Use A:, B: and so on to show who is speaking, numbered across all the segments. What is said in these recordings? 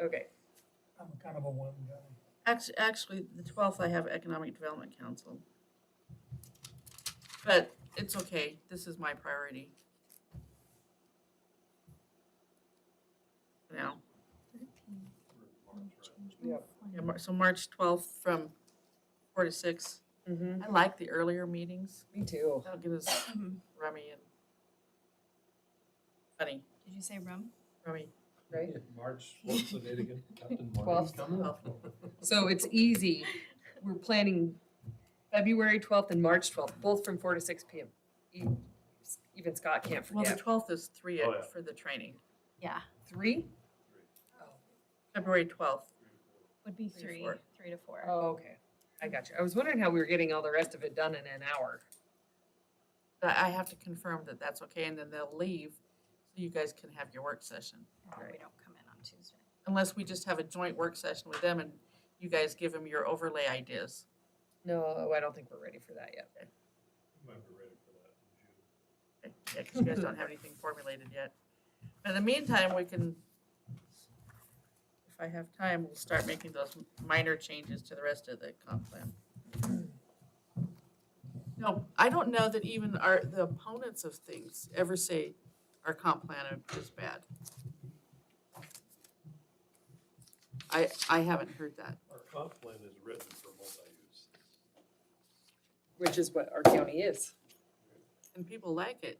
A: Okay,
B: I'm kind of a one guy.
A: actually, actually, the twelfth, I have Economic Development Council. But it's okay, this is my priority. Now, yeah, Mar- so March twelfth from four to six.
C: Mm-hmm.
A: I like the earlier meetings,
C: Me too.
A: that'll get us rummy and funny,
D: Did you say rum?
A: rummy.
C: Right.
E: March, what's the date again? Captain
C: Twelfth.
E: Martin's coming up.
C: So it's easy. We're planning February 12th and March 12th, both from 4 to 6 p.m. E- Even Scott can't
A: Well, the
C: forget.
A: twelfth is three
E: Oh, yeah.
A: for the training,
D: Yeah,
C: Three?
A: February twelfth.
D: would be
A: Three to
D: three,
A: four.
D: three to four.
C: Oh, okay. I got you. I was wondering how we were getting all the rest of it done in an hour.
A: But I have to confirm that that's okay, and then they'll leave, so you guys can have your work session.
D: and then We
C: right.
D: don't come in on Tuesday.
A: Unless we just have a joint work session with them and you guys give them your overlay ideas.
C: No, I don't think we're ready for that yet.
E: Might be ready for that in June.
A: Yeah, because you guys don't have anything formulated yet. But in the meantime, we can, if I have time, we'll start making those minor changes to the rest of the comp plan. No, I don't know that even our, the opponents of things ever say our comp plan is bad. I, I haven't heard that.
E: Our comp plan is written for multi-use.
C: Which is what our county is.
A: And people like it.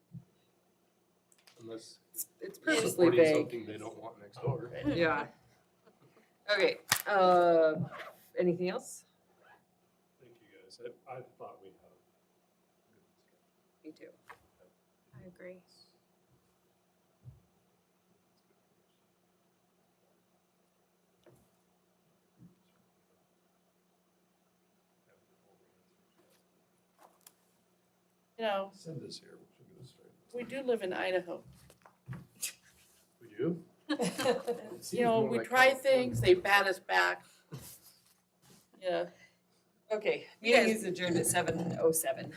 E: Unless
C: It's- It's
E: they're
C: purposely
E: supporting
C: vague.
E: something they don't want next door.
C: Yeah. Okay, uh, anything else?
E: Thank you, guys. I, I thought we had.
C: Me too.
D: I agree.
A: You know,
E: Send this here, we should get it straight.
A: we do live in Idaho.
E: We do? It seems
A: You know,
E: more
A: we
E: like
A: try
E: California.
A: things, they bat us back. Yeah.
C: Okay,
A: You guys-
C: meeting is adjourned at seven oh seven.